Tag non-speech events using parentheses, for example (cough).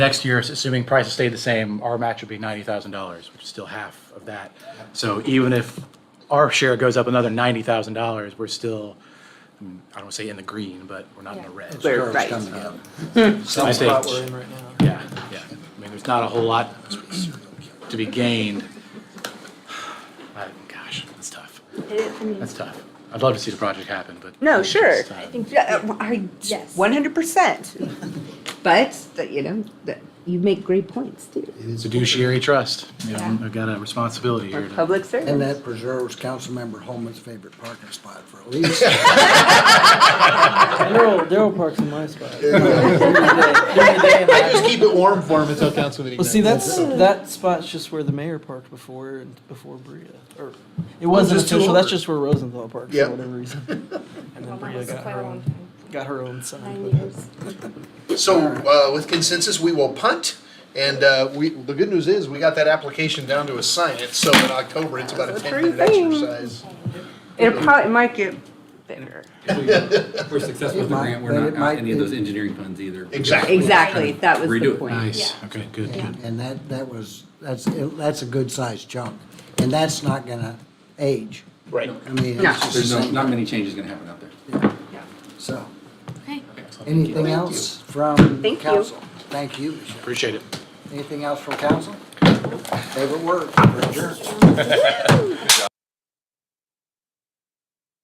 Next year, assuming prices stay the same, our match would be ninety thousand dollars, which is still half of that. So even if our share goes up another ninety thousand dollars, we're still, I mean, I don't wanna say in the green, but we're not in the red. We're right. I Some think- spot we're in right now. Yeah, yeah. I mean, there's not a whole lot to be gained. (sighs) I- Gosh, that's tough. That's tough. I'd love to see the project happen, but. No, sure. It's tough. Yeah, uh, I, Yes. one hundred percent. But, that, you know, that, you make great points too. Fiduciary trust, you know, Yeah. I've got a responsibility We're here. to- public And servants. that preserves Councilmember Holman's favorite parking spot for (laughs) at least. Daryl, Daryl parks in my spot. (laughs) I just keep it warm for him until council meeting. Well, see, night. that's, that spot's just where the mayor parked before, and before Bria, or, it wasn't Oh, just two official, that's over. just where Rosenthal parked Yep. for whatever (laughs) reason. And then Mine Bria was got quite her a long own, time, got her own sign. nine but- years. So, uh, with consensus, we will punt, and, uh, we, the good news is, we got that application down to a science, so in October, it's about a That's a ten minute true thing. exercise. It'll probably might get bigger. We're successful It with the might- grant, but we're it not might out any of be- those engineering funds either. Exactly. Exactly, that was Redo the it. point. Nice, okay, good, good. And that, that was, that's, that's a good sized chunk. And that's not gonna age. Right. I mean, No. it's just the There's no, same. not many changes gonna happen out there. So, Okay. anything else from Thank you. council? Thank you. Michelle. Appreciate it. Anything else from council? Favorite word, adjourned.